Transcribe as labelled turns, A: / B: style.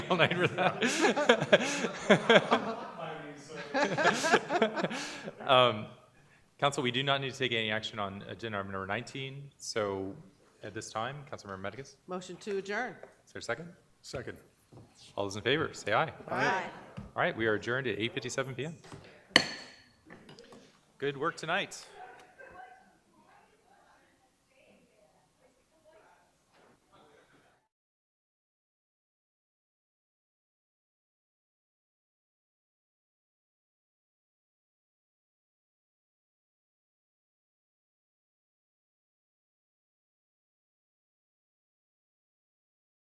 A: all night with that. Um, Council, we do not need to take any action on agenda item number 19, so at this time, Councilmember Medicus, is
B: Motion to adjourn.
A: there a second?
C: Second.
A: All those in favor, say aye.
B: Aye.
A: All right, we are adjourned at 8:57 PM. Good work tonight.